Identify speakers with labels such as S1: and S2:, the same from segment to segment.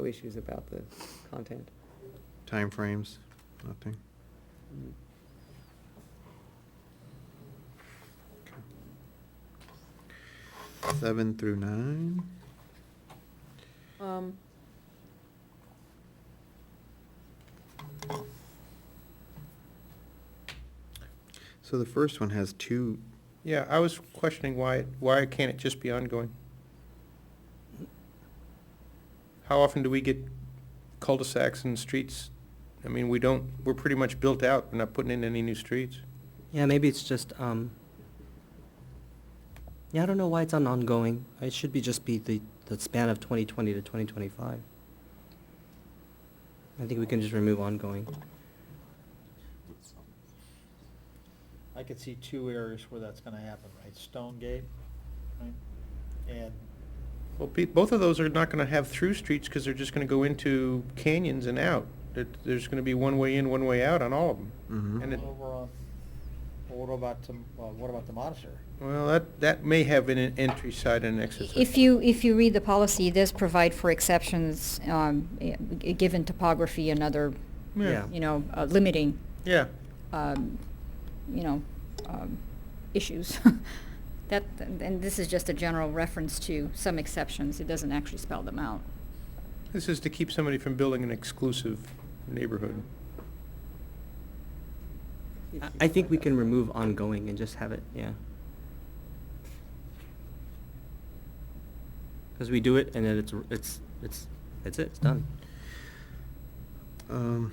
S1: No issues about the content.
S2: Timeframes, nothing.
S1: Mm-hmm.
S2: Seven through nine,
S1: Um,
S2: so the first one has two,
S3: Yeah, I was questioning why, why can't it just be ongoing? How often do we get cul-de-sacs and streets? I mean, we don't, we're pretty much built out, we're not putting in any new streets.
S4: Yeah, maybe it's just, um, yeah, I don't know why it's on ongoing. It should be just be the, the span of twenty twenty to twenty twenty-five. I think we can just remove ongoing.
S5: I could see two areas where that's gonna happen, right? Stone Gate, right? And,
S3: Well, pe- both of those are not gonna have through streets, because they're just gonna go into canyons and out. There- There's gonna be one way in, one way out on all of them.
S2: mhm.
S3: Hmm. And it-
S5: over on, well, what about, the- well, what about the monastery?
S3: Well, that, that may have an en- entry side and an exit side.
S6: If you, if you read the policy, it does provide for exceptions, um, i- given topography and other,
S3: Yeah,
S6: you know, uh, limiting,
S3: yeah,
S6: um, you know, um, issues. That, and this is just a general reference to some exceptions. It doesn't actually spell them out.
S3: this is to keep somebody from building an exclusive neighborhood.
S4: I, I think we can remove ongoing and just have it, yeah. Cause we do it and then it's, it's, it's, that's it, it's done.
S2: Um,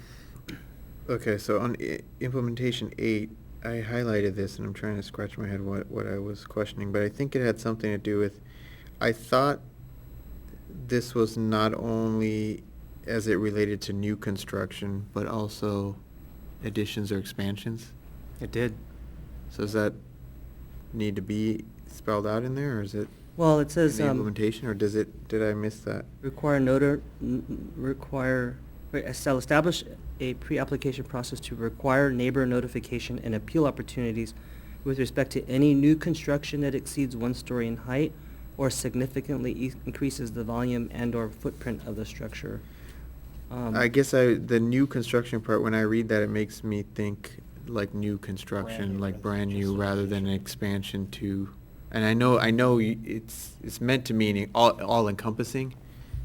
S2: Okay, so on i- implementation eight, I highlighted this, and I'm trying to scratch my head what, what I was questioning, but I think it had something to do with, I thought this was not only as it related to new construction, but also additions or expansions?
S4: It did.
S2: So does that need to be spelled out in there, or is it
S4: Well, it
S2: in
S4: says,
S2: the
S4: um,
S2: implementation, or does it, did I miss that?
S4: Require notar, n- n- require, wait, estel- establish a pre-application process to require neighbor notification and appeal opportunities with respect to any new construction that exceeds one story in height or significantly e- increases the volume and/or footprint of the structure. Um,
S2: I guess I, the new construction part, when I read that, it makes me think like new construction,
S5: new
S2: like
S5: rather than
S2: brand
S5: just
S2: new, rather than an
S5: expansion.
S2: expansion to, and I know, I know y- it's, it's meant to mean all, all encompassing,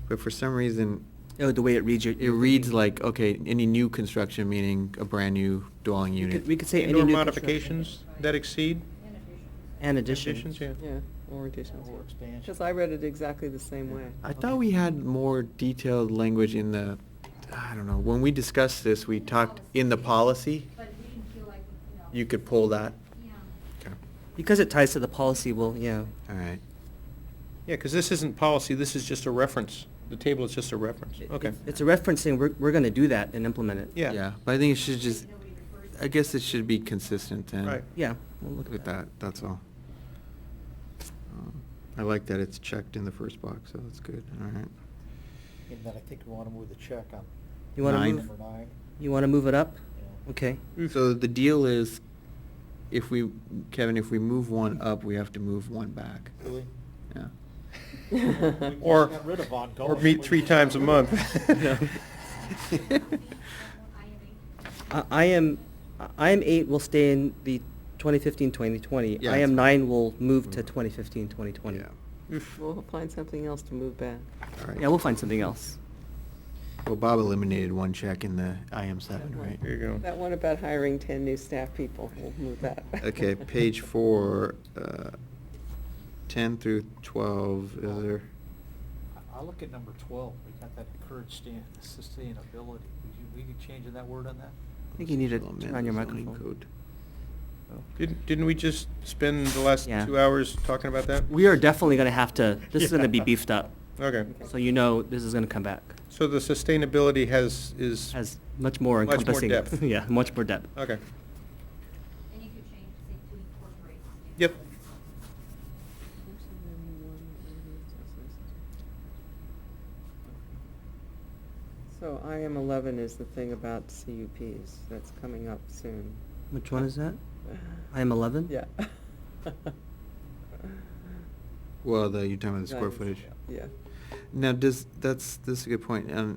S2: but for some reason,
S4: Oh, the way it reads your.
S2: it reads like, okay, any new construction meaning a brand new dwelling
S4: We
S2: unit.
S4: could, we could say any
S3: Indoor
S4: new.
S3: modifications that exceed
S4: construction And additions.
S3: additions, yeah.
S1: yeah, or
S5: Or
S1: additions.
S5: expansion.
S1: Because I read it exactly the same way.
S2: I thought we had more detailed language in the, I don't know, when we discussed this, we talked in the policy,
S6: But we didn't feel like,
S2: you could pull that. Okay,
S4: Because it ties to the policy, well, yeah.
S2: all right.
S3: Yeah, because this isn't policy, this is just a reference. The table is just a reference.
S4: It-
S3: Okay.
S4: it's- It's a referencing, we're, we're gonna do that and implement it.
S3: Yeah.
S2: Yeah, but I think it should just, I guess it should be consistent then.
S3: Right.
S4: Yeah, we'll look
S2: With that, that's all. Um, I like that it's checked in the first box, so that's good, all right.
S5: And then I think we wanna move the check on
S4: You wanna
S2: Nine.
S4: move,
S5: number nine.
S4: you wanna move it up?
S5: you know.
S4: Okay.
S3: Mm.
S2: So the deal is, if we, Kevin, if we move one up, we have to move one back.
S5: Really?
S2: Yeah.
S5: We just
S3: Or-
S5: got rid of ongoing.
S3: Or meet three times a month.
S2: No.
S4: I, I am, I am eight will stay in the 2015, 2020.
S2: Yeah,
S4: I
S2: that's
S4: am
S2: fine.
S4: nine will move to
S2: Mm.
S4: 2015, 2020.
S2: Yeah.
S3: Oof.
S1: We'll find something else to move back.
S2: All right.
S4: Yeah, we'll find something else.
S2: Well, Bob eliminated one check in the IM seven, right?
S3: There you go.
S1: That one about hiring ten new staff people, we'll move that.
S2: Okay, page four, uh, ten through twelve, is there?
S5: I- I look at number twelve, we got that encourage stan- sustainability. Would you, we could change that word on that?
S4: I think you need to
S2: Supplement
S4: turn on your
S2: zoning
S4: microphone.
S2: code.
S3: Didn't, didn't we just spend the last
S4: Yeah.
S3: two hours talking about that?
S4: We are definitely gonna have to, this is gonna be
S5: Yeah.
S4: beefed up.
S3: Okay.
S4: So you know this is gonna come back.
S3: So the sustainability has, is,
S4: Has much more
S3: Much more
S4: encompassing.
S3: depth.
S4: Yeah, much more depth.
S3: okay.
S6: And you could change, say, to incorporate.
S3: Yep.
S1: So IM eleven is the thing about CUPs, that's coming up soon.
S4: Which one is that? I am 11?
S1: Yeah.
S2: Well, the, you're talking about the square
S1: Nice.
S2: footage?
S1: Yeah.
S2: Now, does, that's, this is a good point. Um,